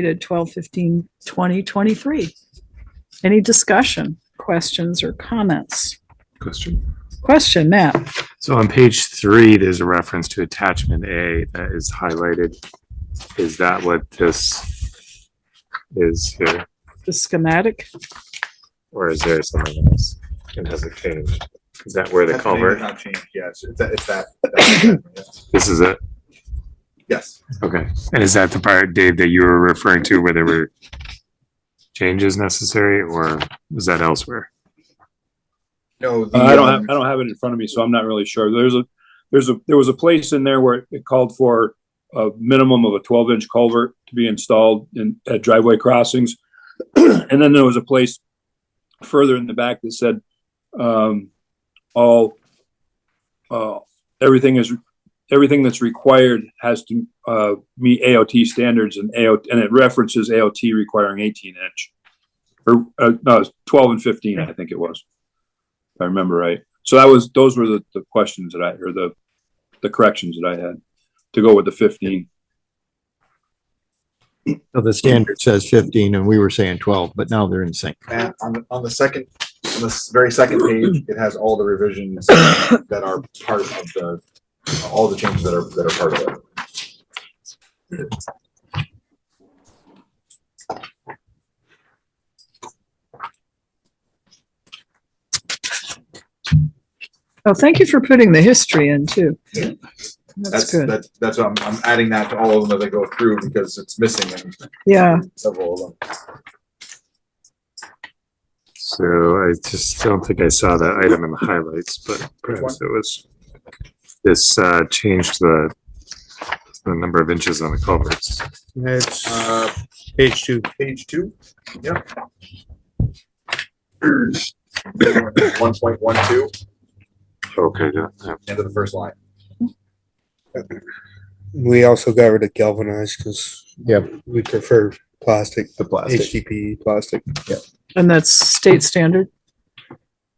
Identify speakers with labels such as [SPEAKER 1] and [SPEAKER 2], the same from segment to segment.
[SPEAKER 1] dated 2023. Any discussion, questions or comments?
[SPEAKER 2] Question.
[SPEAKER 1] Question, Matt?
[SPEAKER 2] So on page three, there's a reference to attachment A that is highlighted. Is that what this is here,
[SPEAKER 1] The schematic?
[SPEAKER 2] or is there something else? It hasn't changed. Is that where the
[SPEAKER 3] That's maybe
[SPEAKER 2] culvert,
[SPEAKER 3] Not changed, yes, it's that, it's that. that's-
[SPEAKER 2] this is it?
[SPEAKER 3] Yes,
[SPEAKER 2] Okay. And is that the part, Dave, that you were referring to where there were changes necessary, or was that elsewhere?
[SPEAKER 3] no.
[SPEAKER 4] Uh,
[SPEAKER 3] the,
[SPEAKER 4] I don't have,
[SPEAKER 3] um,
[SPEAKER 4] I don't have it in front of me, so I'm not really sure. There's a, there's a, there was a place in there where it called for a minimum of a twelve inch culvert to be installed in, at driveway crossings. And then there was a place further in the back that said, um, all, uh, everything is, everything that's required has to, uh, meet AOT standards and AO, and it references AOT requiring eighteen inch. Or, uh, no, twelve and fifteen, I think it was if I remember right. So that was, those were the, the questions that I, or the, the corrections that I had to go with the fifteen.
[SPEAKER 5] So the standard says fifteen and we were saying twelve, but now they're in sync.
[SPEAKER 3] Matt, on, the- on the second, on this very second page, it has all the revisions that are part of the, all the changes that are, that are part of it.
[SPEAKER 1] Oh, thank you for putting the history in too.
[SPEAKER 3] Yeah.
[SPEAKER 1] That's
[SPEAKER 3] That's,
[SPEAKER 1] good.
[SPEAKER 3] that's, that's what I'm, I'm adding that to all of them as I go through because it's missing
[SPEAKER 1] Yeah,
[SPEAKER 3] in several of them.
[SPEAKER 2] So I just don't think I saw that item in the highlights, but perhaps it was this uh changed the the number of inches on the culverts.
[SPEAKER 5] It's
[SPEAKER 3] Uh,
[SPEAKER 5] page two.
[SPEAKER 3] page two, yep. One point one two,
[SPEAKER 2] Okay, yeah, yeah.
[SPEAKER 3] end of the first line.
[SPEAKER 6] We also got rid of galvanized because
[SPEAKER 5] Yep.
[SPEAKER 6] we prefer plastic,
[SPEAKER 5] The plastic.
[SPEAKER 6] HDPE plastic.
[SPEAKER 1] and that's state standard.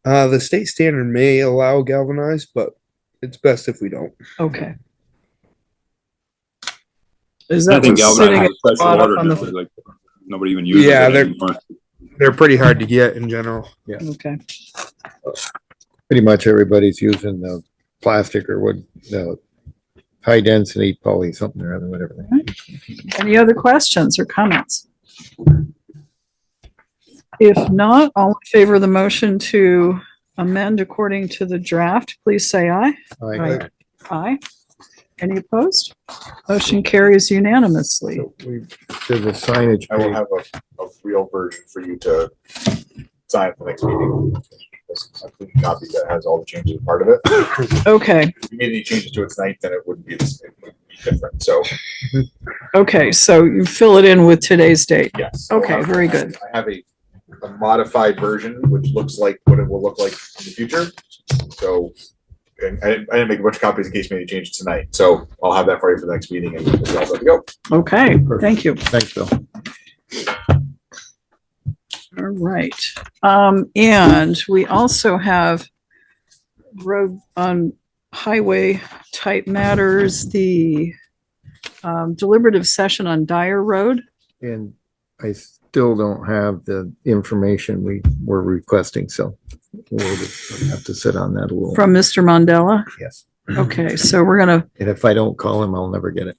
[SPEAKER 6] Uh, the state standard may allow galvanized, but it's best if we don't.
[SPEAKER 1] Okay. Is
[SPEAKER 4] I
[SPEAKER 1] that
[SPEAKER 4] think
[SPEAKER 1] what's sitting
[SPEAKER 4] galvanized
[SPEAKER 1] at
[SPEAKER 4] is
[SPEAKER 1] the
[SPEAKER 4] special
[SPEAKER 1] bottom
[SPEAKER 4] water,
[SPEAKER 1] on the,
[SPEAKER 4] nowadays, like, nobody even uses
[SPEAKER 6] Yeah,
[SPEAKER 4] it
[SPEAKER 6] they're-
[SPEAKER 4] anymore.
[SPEAKER 6] They're pretty hard to get in general.
[SPEAKER 1] okay,
[SPEAKER 5] Pretty much everybody's using the plastic or wood, the high density poly, something or other, whatever.
[SPEAKER 1] any other questions or comments? If not, all in favor of the motion to amend according to the draft, please say aye.
[SPEAKER 5] I
[SPEAKER 1] Aye. Aye. Any opposed? Motion carries unanimously.
[SPEAKER 5] did the signage.
[SPEAKER 3] I will
[SPEAKER 5] page.
[SPEAKER 3] have a, a real version for you to sign at the next meeting. This- A clean copy that has all the changes part of it.
[SPEAKER 1] Okay,
[SPEAKER 3] If you made any changes to it tonight, then it wouldn't be, this- it would be different, so,
[SPEAKER 1] okay, so you fill it in with today's date.
[SPEAKER 3] yes.
[SPEAKER 1] Okay, very good.
[SPEAKER 3] I have a, a modified version, which looks like what it will look like in the future, so. and I, didn't- I didn't make a bunch of copies in case you made any changes tonight, so I'll have that for you for the next meeting and we'll all set to go.
[SPEAKER 1] Okay, thank you.
[SPEAKER 5] Thanks, Bill.
[SPEAKER 1] All right. Um, and we also have road on highway type matters, the um, deliberative session on Dyer Road.
[SPEAKER 5] And I still don't have the information we were requesting, so we'll just have to sit on that a little.
[SPEAKER 1] From Mr. Mandela.
[SPEAKER 5] Yes.
[SPEAKER 1] Okay, so we're gonna,
[SPEAKER 5] And if I don't call him, I'll never get it.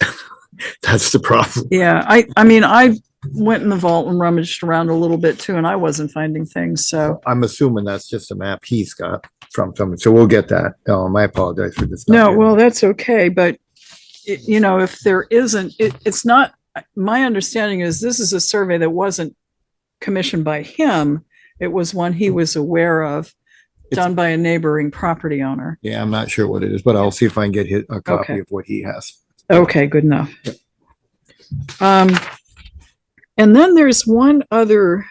[SPEAKER 5] That's the problem.
[SPEAKER 1] yeah, I, I mean, I went in the vault and rummaged around a little bit too, and I wasn't finding things, so.
[SPEAKER 5] I'm assuming that's just a map he's got from someone, so we'll get that. Um, I apologize for this. not
[SPEAKER 1] No,
[SPEAKER 5] getting
[SPEAKER 1] well, that's okay, but it, you know, if there isn't, it, it's not, my understanding is this is a survey that wasn't commissioned by him. It was one he was aware of,
[SPEAKER 5] Hmm. It's-
[SPEAKER 1] done by a neighboring property owner.
[SPEAKER 5] Yeah, I'm not sure what it is, but I'll see if I can get hit a
[SPEAKER 1] Okay.
[SPEAKER 5] copy of what he has.
[SPEAKER 1] Okay, good enough. Um, and then there's one other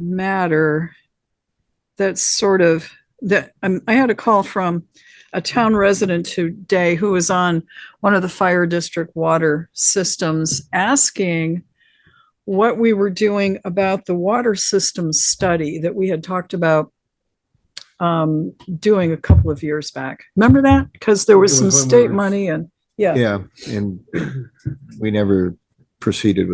[SPEAKER 1] matter that's sort of, that, um, I had a call from a town resident today who was on one of the fire district water systems asking what we were doing about the water system study that we had talked about um, doing a couple of years back. Remember that? Because there was
[SPEAKER 5] It
[SPEAKER 1] some
[SPEAKER 5] was when we
[SPEAKER 1] state
[SPEAKER 5] were-
[SPEAKER 1] money and, yeah.
[SPEAKER 5] Yeah, and we never proceeded with